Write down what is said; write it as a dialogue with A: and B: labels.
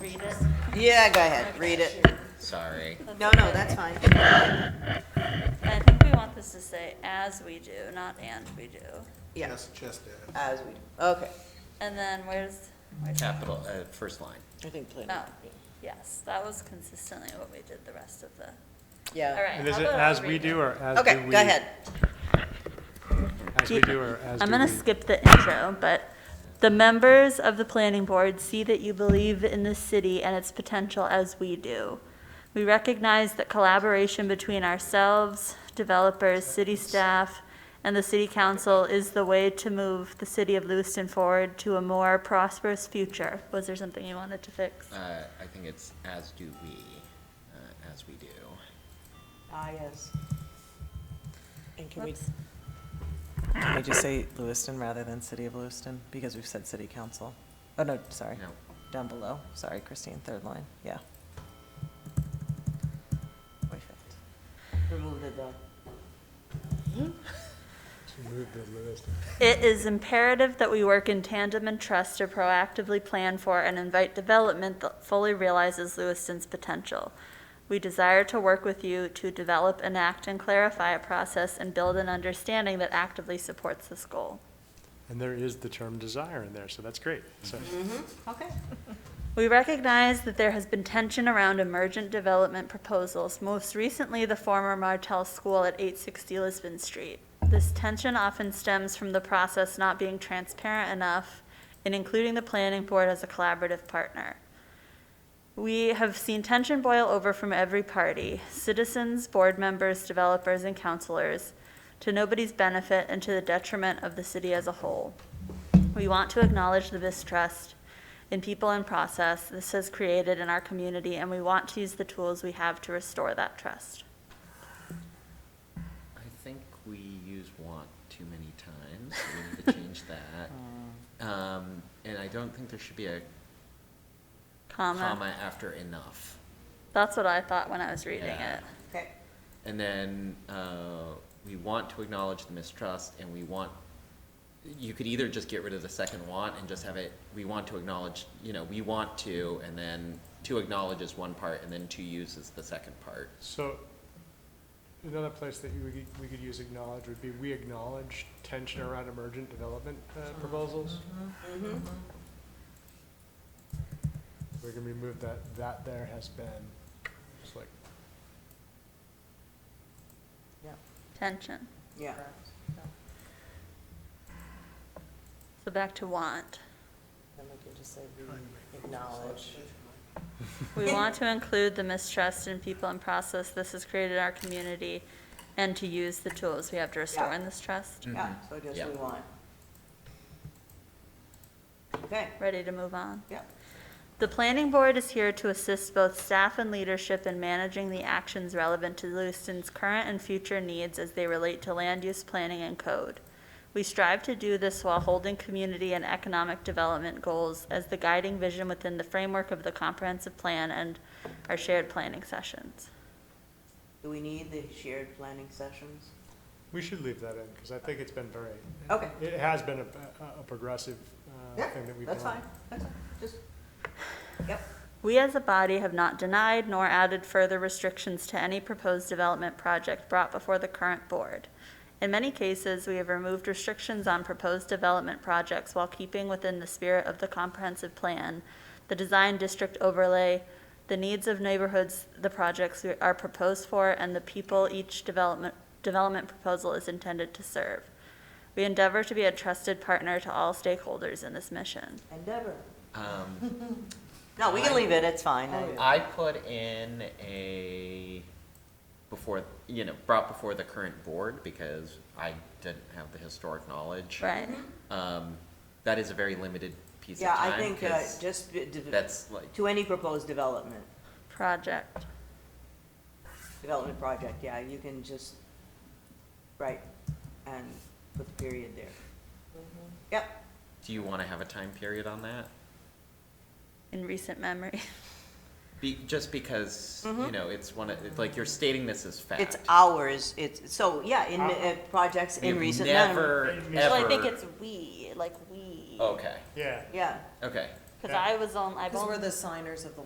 A: read it?
B: Yeah, go ahead, Uh, read it.
C: Sorry.
B: No, no, that's fine.
A: I think we want this to say as we do, not and we do.
B: Yeah,
D: Just, just that.
B: as we, okay.
A: And then where's, where's?
C: Capital, uh, first line.
B: I think plan.
A: Oh, yes, that was consistently what we did the rest of the, Oh, all
B: Yeah.
A: right.
E: And is
A: how
E: it
A: about
E: as
A: I'll
E: we
A: read
E: do or as do we?
B: Okay, go ahead.
E: As we do or as do we?
A: I'm going to skip the intro, but the members of the planning board see that you believe in the city and its potential as we do. We recognize that collaboration between ourselves, developers, city staff, and the city council is the way to move the city of Lewiston forward to a more prosperous future. Was there something you wanted to fix?
C: Uh, I think it's as do we, uh, as we do.
B: Ah, yes.
F: And can we,
A: Whoops.
F: can we just say Lewiston rather than City of Lewiston? Because we've said City Council. Oh, no, sorry.
C: No.
F: Down below. Sorry, Christine, third line. Yeah. Or fifth.
B: Remove the dog.
A: It is imperative that we work in tandem and trust to proactively plan for and invite development that fully realizes Lewiston's potential. We desire to work with you to develop, enact, and clarify a process and build an understanding that actively supports this goal.
E: And there is the term desire in there, so that's great. So
B: Okay.
A: We recognize that there has been tension around emergent development proposals, most recently the former Martell School at 860 Lisbon Street. This tension often stems from the process not being transparent enough in including the planning board as a collaborative partner. We have seen tension boil over from every party, citizens, board members, developers, and counselors, to nobody's benefit and to the detriment of the city as a whole. We want to acknowledge the mistrust in people and process this has created in our community, and we want to use the tools we have to restore that trust.
C: I think we use want too many times. We need to change that. Um, and I don't think there should be a
A: Comma.
C: comma after enough.
A: That's what I thought when I was reading
C: Yeah.
A: it.
B: Okay.
C: And then, uh, we want to acknowledge the mistrust and we want, you could either just get rid of the second want and just have it, we want to acknowledge, you know, we want to, and then to acknowledge is one part and then to use is the second part.
E: So another place that we could, we could use acknowledge would be, we acknowledge tension around emergent development uh, proposals.
A: Mm-hmm.
E: We're gonna remove that, that there has been, just like,
A: Tension.
B: Yeah.
A: So back to want.
F: Then we can just say we acknowledge.
A: We want to include the mistrust in people and process this has created in our community, and to use the tools we have to restore in this trust.
B: Yeah, so just
C: Yeah.
B: we want. Okay,
A: Ready to move on?
B: yeah.
A: The planning board is here to assist both staff and leadership in managing the actions relevant to Lewiston's current and future needs as they relate to land use planning and code. We strive to do this while holding community and economic development goals as the guiding vision within the framework of the comprehensive plan and our shared planning sessions.
B: Do we need the shared planning sessions?
E: we should leave that in, because I think it's been very.
B: Okay.
E: It has been a, a progressive uh,
B: Yeah,
E: thing that we've done.
B: that's fine, that's fine, just, yep.
A: We as a body have not denied nor added further restrictions to any proposed development project brought before the current board. In many cases, we have removed restrictions on proposed development projects while keeping within the spirit of the comprehensive plan, the design district overlay, the needs of neighborhoods the projects are proposed for, and the people each development, development proposal is intended to serve. We endeavor to be a trusted partner to all stakeholders in this mission.
B: Endeavor.
C: Um,
B: No, we can leave it, it's fine.
F: Oh,
C: I put in a, before, you know, brought before the current board because I didn't have the historic knowledge.
A: Right?
C: Um, that is a very limited piece of
B: Yeah,
C: time.
B: I think, uh,
C: 'cause
B: just, d- d-
C: That's like,
B: to any proposed development,
A: Project.
B: development project, yeah, you can just, right, and put the period there.
A: Mm-hmm.
B: Yep,
C: do you want to have a time period on that?
A: in recent memory.
C: Be, just because, you know, it's one of, it's like you're stating this as fact.
B: Mm-hmm. it's ours, it's, so, yeah, in, uh, projects in
C: We've
B: recent memory.
C: Never, Oh. ever.
E: Well,
A: Well, I think it's we, like we.
C: Okay,
E: Yeah,
B: Yeah,
C: okay.
G: because
H: Yeah.
G: I was on, I've
A: Because
G: only.
A: we're the signers of the